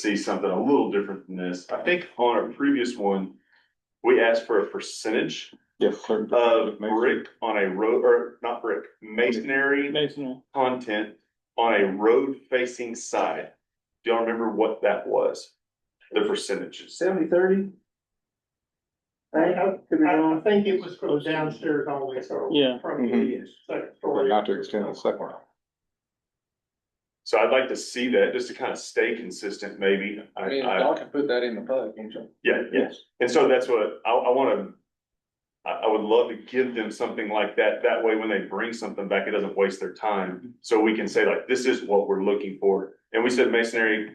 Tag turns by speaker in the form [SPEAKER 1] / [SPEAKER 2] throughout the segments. [SPEAKER 1] see something a little different than this. I think on our previous one, we asked for a percentage
[SPEAKER 2] Yes, sir.
[SPEAKER 1] of brick on a road, or not brick, masonry
[SPEAKER 2] Masonry.
[SPEAKER 1] content on a road facing side. Do y'all remember what that was? The percentages?
[SPEAKER 3] Seventy, thirty?
[SPEAKER 4] I, I, I think it was from downstairs always, or
[SPEAKER 2] Yeah.
[SPEAKER 4] from the
[SPEAKER 3] Mhm.
[SPEAKER 4] second
[SPEAKER 2] But
[SPEAKER 4] story.
[SPEAKER 2] Mm-hmm. not to extend the second one.
[SPEAKER 1] So I'd like to see that just to kind of stay consistent, maybe. I,
[SPEAKER 3] I mean,
[SPEAKER 1] I,
[SPEAKER 3] y'all can put that in the plug, can't you?
[SPEAKER 1] yeah, yeah. And so that's what I, I wanna. I, I would love to give them something like that. That way, when they bring something back, it doesn't waste their time. So we can say like, this is what we're looking for. And we said masonry.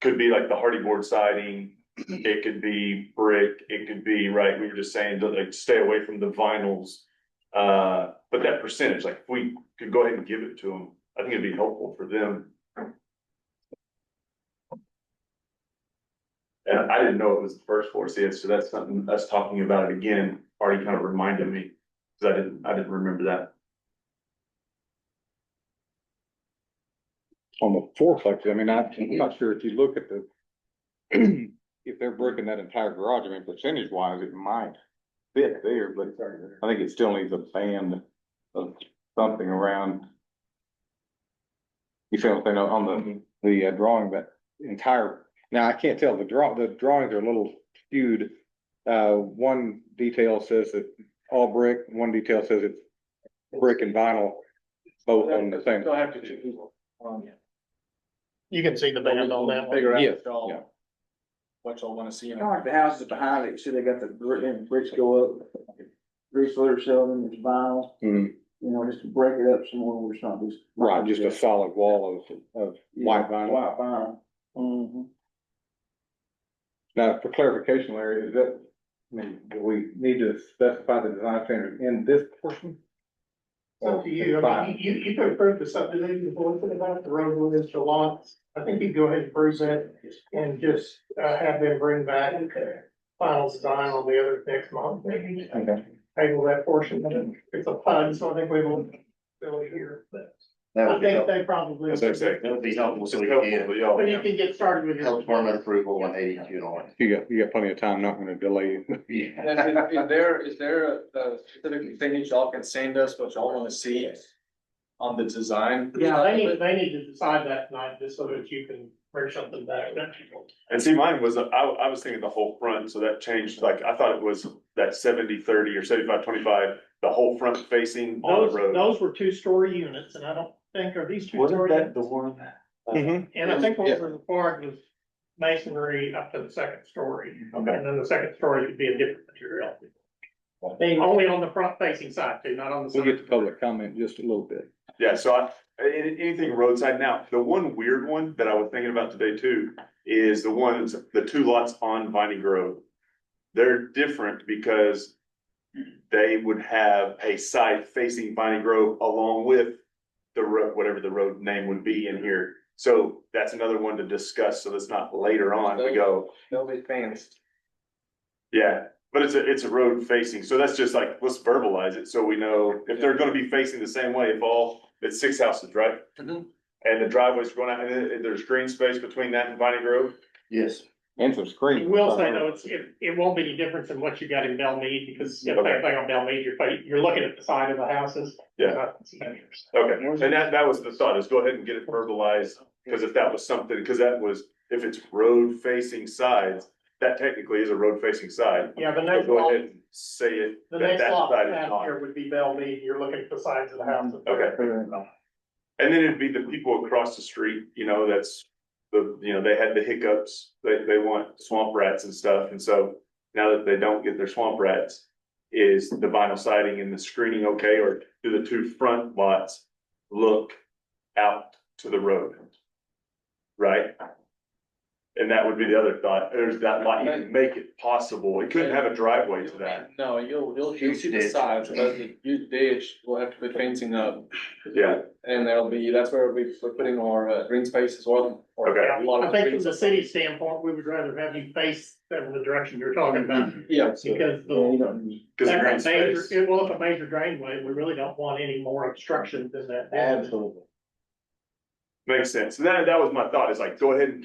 [SPEAKER 1] Could be like the hardy board siding, it could be brick, it could be, right, we were just saying to like stay away from the vinyls. Uh, but that percentage, like, if we could go ahead and give it to them, I think it'd be helpful for them. And I didn't know it was the first four seats, so that's something, us talking about it again, already kind of reminded me, cause I didn't, I didn't remember that.
[SPEAKER 2] On the fourplex, I mean, I- I'm not sure if you look at the. If they're breaking that entire garage, I mean, percentage wise, it might fit there, but I think it still needs a band of something around. You feel what I'm saying on the, the uh, drawing, that entire, now I can't tell, the draw, the drawings are a little skewed. Uh, one detail says that all brick, one detail says it's brick and vinyl, both on the same.
[SPEAKER 3] They'll have to choose one.
[SPEAKER 4] You can see the band on that one.
[SPEAKER 3] Figure out
[SPEAKER 2] Yes,
[SPEAKER 3] what y'all,
[SPEAKER 2] yeah.
[SPEAKER 3] what y'all wanna see. in
[SPEAKER 5] Kind
[SPEAKER 3] it.
[SPEAKER 5] of like the houses behind it, you see they got the brick and bricks go up, roof layer them, it's vinyl,
[SPEAKER 2] Mm,
[SPEAKER 5] you know, just to break it up some more, we're just not just.
[SPEAKER 2] right, just a solid wall of, of white
[SPEAKER 5] Yeah,
[SPEAKER 2] vinyl.
[SPEAKER 5] White vinyl. Mhm.
[SPEAKER 2] Now, for clarification, Larry, is that, I mean, do we need to specify the design standard in this portion?
[SPEAKER 4] It's up to you, I mean, you, you could approve the subdivision, but what about the road with the lots? I think you go ahead and approve that and just, uh, have them bring back final design on the other next month. Maybe
[SPEAKER 2] Okay.
[SPEAKER 4] Table that portion, of it. it's a fund, so I think we will, fill it here, but
[SPEAKER 6] That
[SPEAKER 4] I
[SPEAKER 6] would be
[SPEAKER 4] think
[SPEAKER 6] helpful.
[SPEAKER 4] they probably.
[SPEAKER 1] That's what I'm saying.
[SPEAKER 6] That would be helpful so
[SPEAKER 1] It's
[SPEAKER 6] we
[SPEAKER 1] helpful,
[SPEAKER 6] can-
[SPEAKER 1] but
[SPEAKER 4] But you
[SPEAKER 1] y'all-
[SPEAKER 4] can get started with. your-
[SPEAKER 6] Health department approval one eighty July.
[SPEAKER 2] You got, you got plenty of time, not gonna delay.
[SPEAKER 3] And is, is there, is there a- a specific thing that y'all can send us, what y'all wanna see on the design?
[SPEAKER 4] Yeah, they need, they need to decide that tonight, just so that you can bring something back.
[SPEAKER 1] And see, mine was, I, I was thinking the whole front, so that changed, like, I thought it was that 70-30 or 75-25, the whole front facing on
[SPEAKER 4] Those,
[SPEAKER 1] the road.
[SPEAKER 4] those were two-story units, and I don't think, are these
[SPEAKER 1] Wasn't
[SPEAKER 4] two-story?
[SPEAKER 1] that
[SPEAKER 4] units?
[SPEAKER 1] the one?
[SPEAKER 5] Mm-hmm.
[SPEAKER 2] Mhm.
[SPEAKER 4] And I think
[SPEAKER 2] Yeah.
[SPEAKER 4] what was required was masonry up to the second story,
[SPEAKER 1] Okay.
[SPEAKER 4] and then the second story could be a different material. Being only on the front-facing side, too, not on the
[SPEAKER 2] We'll
[SPEAKER 4] side.
[SPEAKER 2] get to public comment in just a little bit.
[SPEAKER 1] Yeah, so I, a- anything roadside now, the one weird one that I was thinking about today too, is the ones, the two lots on Viney Grove. They're different because they would have a side facing Viney Grove along with the road, whatever the road name would be in here. So that's another one to discuss, so that's not later on we go,
[SPEAKER 3] Nobody's fans.
[SPEAKER 1] yeah. But it's a, it's a road facing, so that's just like, let's verbalize it, so we know if they're gonna be facing the same way, if all, it's six houses, right? And the driveway's going out, and then- and there's green space between that and Viney Grove?
[SPEAKER 6] Yes,
[SPEAKER 2] And some
[SPEAKER 4] I
[SPEAKER 2] screen.
[SPEAKER 4] will say though, it's, it, it won't be any different than what you got in Belmead, because the same thing on Belmead, you're, fa- you're looking at the side of the houses.
[SPEAKER 1] Yeah.
[SPEAKER 4] not the seniors.
[SPEAKER 1] Okay, and that, that was the thought, is go ahead and get it verbalized, because if that was something, because that was, if it's road facing sides, that technically is a road facing side.
[SPEAKER 4] Yeah, the
[SPEAKER 1] So
[SPEAKER 4] next
[SPEAKER 1] go
[SPEAKER 4] lot,
[SPEAKER 1] ahead and say it,
[SPEAKER 4] the
[SPEAKER 1] that
[SPEAKER 4] next
[SPEAKER 1] that
[SPEAKER 4] lot
[SPEAKER 1] side is
[SPEAKER 4] down
[SPEAKER 1] not.
[SPEAKER 4] here would be Belmead, you're looking at the sides of the houses.
[SPEAKER 1] Okay, and then it'd be the people across the street, you know, that's, the, you know, they had the hiccups, they, they want swamp rats and stuff, and so now that they don't get their swamp rats, is the vinyl siding and the screening okay, or do the two front lots look out to the road? Right? And that would be the other thought, there's that lot, you can make it possible, it couldn't have a driveway to that,
[SPEAKER 3] No, you'll, you'll, you'll
[SPEAKER 6] Huge
[SPEAKER 3] see the
[SPEAKER 6] ditch.
[SPEAKER 3] sides, but the huge ditch, we'll have to put fencing up.
[SPEAKER 1] yeah,
[SPEAKER 3] And there'll be, that's where we'll be putting our uh, green space as well. or
[SPEAKER 1] Okay.
[SPEAKER 3] a lot
[SPEAKER 4] I
[SPEAKER 3] of
[SPEAKER 4] think
[SPEAKER 3] green
[SPEAKER 4] from the
[SPEAKER 3] space.
[SPEAKER 4] city standpoint, we would rather have you face them in the direction you're talking
[SPEAKER 1] Mm-hmm.
[SPEAKER 4] about,
[SPEAKER 3] Yeah,
[SPEAKER 4] because
[SPEAKER 5] Yeah, you
[SPEAKER 4] the.
[SPEAKER 5] don't need.
[SPEAKER 1] cause the green
[SPEAKER 4] that's a major,
[SPEAKER 1] space.
[SPEAKER 4] it will have a major drainway, we really don't want any more obstruction than that.
[SPEAKER 5] Absolutely.
[SPEAKER 1] Makes sense, that, that was my thought, is like, go ahead and